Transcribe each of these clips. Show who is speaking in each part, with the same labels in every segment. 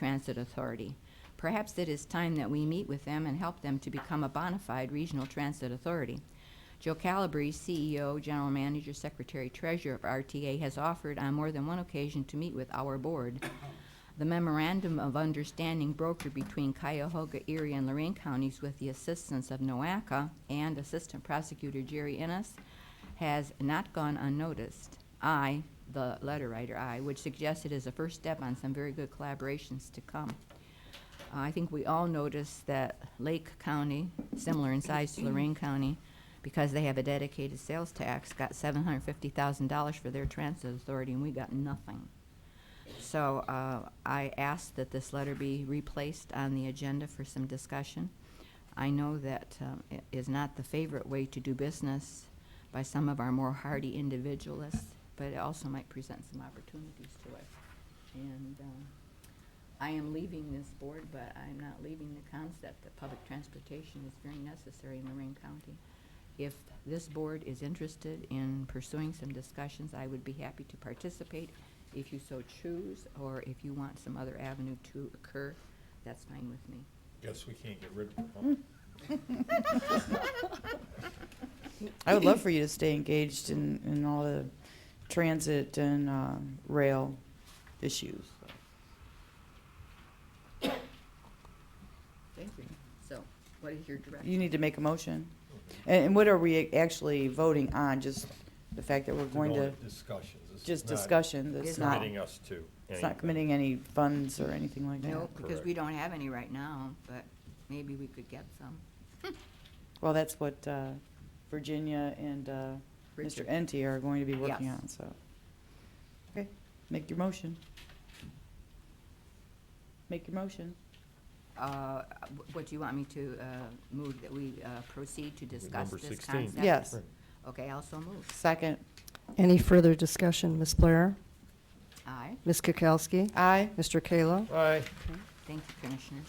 Speaker 1: Transit Authority. Perhaps it is time that we meet with them and help them to become a bona fide regional transit authority. Joe Calabrese, CEO, General Manager, Secretary, Treasurer of RTA, has offered on more than one occasion to meet with our board. The memorandum of understanding brokered between Cuyahoga, Erie, and Lorraine counties with the assistance of NOACA and Assistant Prosecutor Jerry Innes has not gone unnoticed. I, the letter writer, I, would suggest it is a first step on some very good collaborations to come. I think we all noticed that Lake County, similar in size to Lorraine County, because they have a dedicated sales tax, got seven hundred fifty thousand dollars for their transit authority, and we got nothing. So uh, I ask that this letter be replaced on the agenda for some discussion. I know that um, it is not the favorite way to do business by some of our more hardy individualists, but it also might present some opportunities to us. And um, I am leaving this board, but I'm not leaving the concept that public transportation is very necessary in Lorraine County. If this board is interested in pursuing some discussions, I would be happy to participate if you so choose, or if you want some other avenue to occur, that's fine with me.
Speaker 2: Guess we can't get rid of her, huh?
Speaker 3: I would love for you to stay engaged in, in all the transit and uh, rail issues.
Speaker 1: Thank you. So, what is your direction?
Speaker 3: You need to make a motion. And, and what are we actually voting on? Just the fact that we're going to,
Speaker 2: Discussions. This is
Speaker 3: just
Speaker 2: not
Speaker 3: discussion,
Speaker 1: It's
Speaker 3: that's not,
Speaker 2: Committing us to.
Speaker 3: it's not
Speaker 2: anything.
Speaker 3: committing any funds or anything like that.
Speaker 1: No, because we don't have any right now, but maybe we could get some.
Speaker 3: Well, that's what uh, Virginia and uh, Mr.
Speaker 1: Richard.
Speaker 3: Enti are going to be working
Speaker 1: Yes.
Speaker 3: on, so. Okay, make your motion. Make your motion.
Speaker 1: Uh, wh- What, do you want me to uh, move that we uh, proceed to discuss
Speaker 2: number
Speaker 1: this
Speaker 2: 16.
Speaker 1: concept?
Speaker 3: Yes.
Speaker 1: Okay, also move.
Speaker 3: Second.
Speaker 4: Any further discussion? Ms. Blair?
Speaker 1: Aye.
Speaker 4: Ms. Kukowski?
Speaker 3: Aye.
Speaker 4: Mr. Kayla?
Speaker 2: Aye.
Speaker 1: Thank you, Commissioners.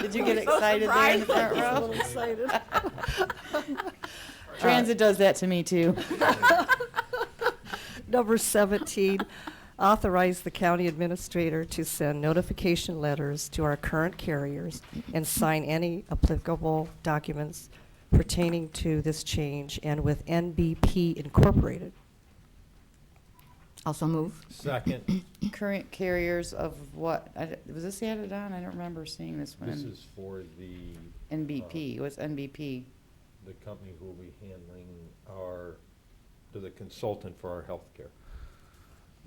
Speaker 3: Did you get excited there in the front row? Transit does that to me too.
Speaker 4: Number 17, authorize the county administrator to send notification letters to our current carriers and sign any applicable documents pertaining to this change and with NBP Incorporated.
Speaker 1: Also move.
Speaker 2: Second,
Speaker 3: Current carriers of what, I d- was this added on? I don't remember seeing this one.
Speaker 2: this
Speaker 3: in
Speaker 2: is uh, for the,
Speaker 3: NBP, what's NBP?
Speaker 2: the company who will be handling our, to the consultant for our healthcare.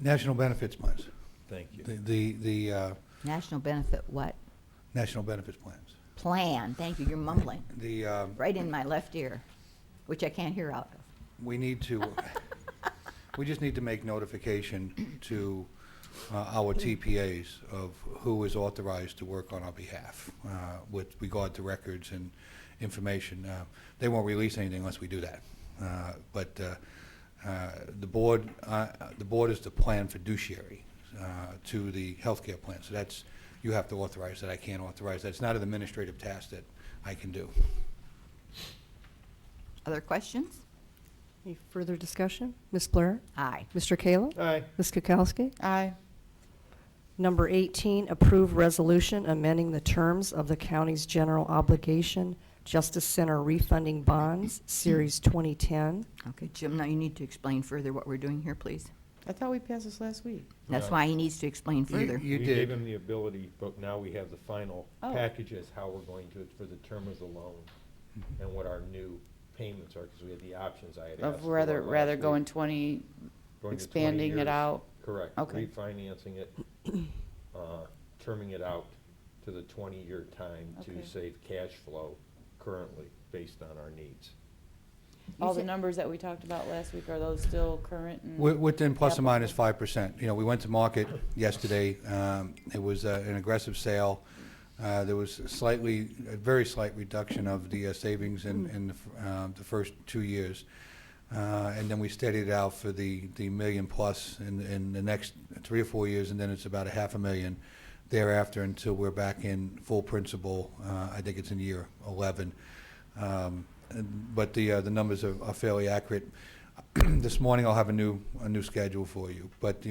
Speaker 5: National benefits plans,
Speaker 2: Thank you.
Speaker 5: the, the, the uh,
Speaker 1: National benefit what?
Speaker 5: national benefits plans.
Speaker 1: Plan. Thank you, you're mumbling.
Speaker 5: The, uh,
Speaker 1: Right in my left ear, which I can't hear out of.
Speaker 5: we need to, we just need to make notification to uh, our TPAs of who is authorized to work on our behalf uh, with regard to records and information. Uh, They won't release anything unless we do that. Uh, But uh, uh, the board, uh, the board is the plan fiduciary uh, to the healthcare plan. So that's, you have to authorize that. I can't authorize that. It's not an administrative task that I can do.
Speaker 1: Other questions?
Speaker 4: Any further discussion? Ms. Blair?
Speaker 1: Aye.
Speaker 4: Mr. Kayla?
Speaker 2: Aye.
Speaker 4: Ms. Kukowski?
Speaker 3: Aye.
Speaker 4: Number 18, approve resolution amending the terms of the county's general obligation Justice Center refunding bonds, Series 2010.
Speaker 1: Okay, Jim, now you need to explain further what we're doing here, please.
Speaker 3: I thought we passed this last week.
Speaker 1: That's
Speaker 2: Right.
Speaker 1: why he needs to explain
Speaker 5: You-
Speaker 1: further.
Speaker 5: You
Speaker 2: We gave
Speaker 5: did.
Speaker 2: him the ability, but now we have the final
Speaker 3: Oh.
Speaker 2: package as how we're going to, for the term of the loan
Speaker 5: Mm-hmm.
Speaker 2: and what our new payments are, because we had the options I had asked.
Speaker 3: Of
Speaker 2: for
Speaker 3: rather,
Speaker 2: last
Speaker 3: rather
Speaker 2: week.
Speaker 3: going twenty,
Speaker 2: Going to 20
Speaker 3: expanding
Speaker 2: years.
Speaker 3: it out.
Speaker 2: Correct.
Speaker 3: Okay.
Speaker 2: Refinancing it, uh, terming it out to the 20-year time
Speaker 3: Okay.
Speaker 2: to save cash flow currently based on our needs.
Speaker 3: All the numbers that we talked about last week, are those still current? and-
Speaker 5: Wi- Within plus or minus five percent. You know, we went to market yesterday. Um, It was uh, an aggressive sale. Uh, There was slightly, a very slight reduction of the uh, savings in, in the f- uh, the first two years. Uh, And then we steadied it out for the, the million plus in, in the next three or four years, and then it's about a half a million thereafter until we're back in full principal. Uh, I think it's in year 11. Um, and- But the, uh, the numbers are are fairly accurate. This morning, I'll have a new, a new schedule for you, but the